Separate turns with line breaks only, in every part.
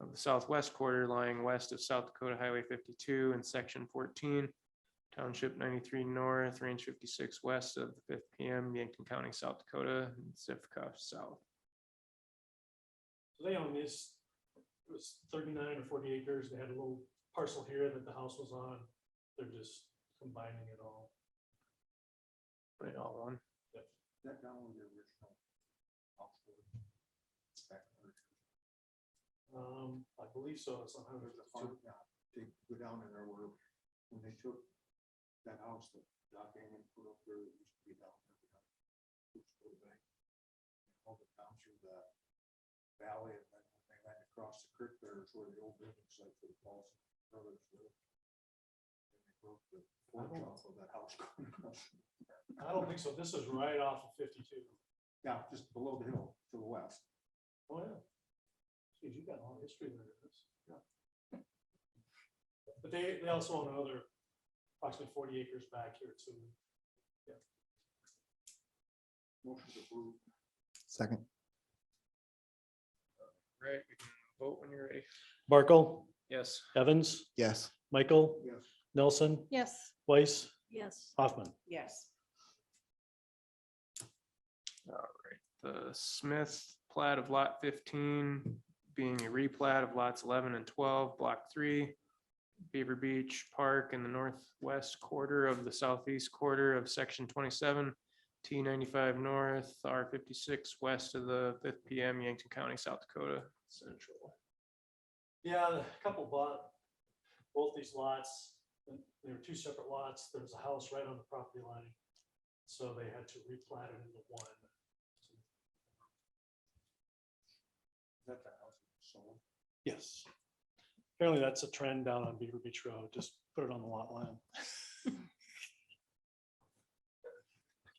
of the southwest quarter lying west of South Dakota Highway fifty-two and section fourteen, township ninety-three north, range fifty-six west of the fifth PM, Yankton County, South Dakota, and Zipca South.
So they own this, it was thirty-nine or forty acres, they had a little parcel here that the house was on, they're just combining it all.
Put it all on.
That down on the original. Oxford. Back on the-
Um, I believe so, it's on
There's a
Highway
farm, yeah, they go down in there where, when they took that house that Doc Hammond put up there, it used to be down there. behind Coops Road Bank. and All the down through the valley, and then when they went across the creek there is where the old building site for the Paulson brothers lived. And they broke the porch off of that house going across,
I don't think so, this is right off of fifty-two.
yeah, just below the hill to the west.
Oh, yeah. Geez, you got a long history there. Chris. But they, they also own another approximately forty acres back here too.
Motion approved. Second.
Right, we can vote when you're ready.
Barkle,
Yes.
Evans,
Yes.
Michael,
Yes.
Nelson,
Yes.
Weiss,
Yes.
Hoffman.
Yes.
the Smith plat of lot fifteen being a replat of lots eleven and twelve, block three. Beaver Beach Park in the northwest quarter of the southeast quarter of section twenty-seven, T ninety-five north, R fifty-six west of the fifth PM, Yankton County, South Dakota Central.
Yeah, a couple bought both these lots, and they were two separate lots, there's a house right on the property line. So they had to replat it into one.
That the house was sold.
Yes. Apparently that's a trend down on Beaver Beach Road. Just put it on the lot line.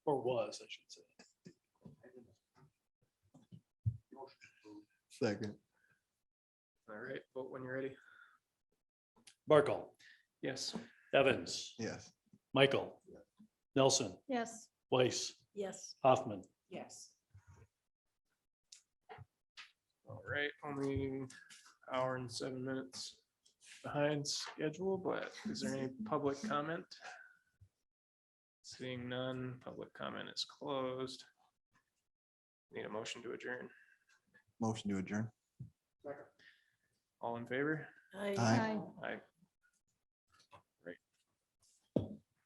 Or was, I should say.
Second.
All right, vote when you're ready.
Barkle,
Yes,
Evans,
Yes.
Michael, Nelson,
Yes.
Weiss,
Yes.
Hoffman.
Yes.
all right, only hour and seven minutes behind schedule, but is there any public comment? Seeing none, public comment is closed. Need a motion to adjourn.
Motion to adjourn.
All in favor?
I.
Aye.
Aye.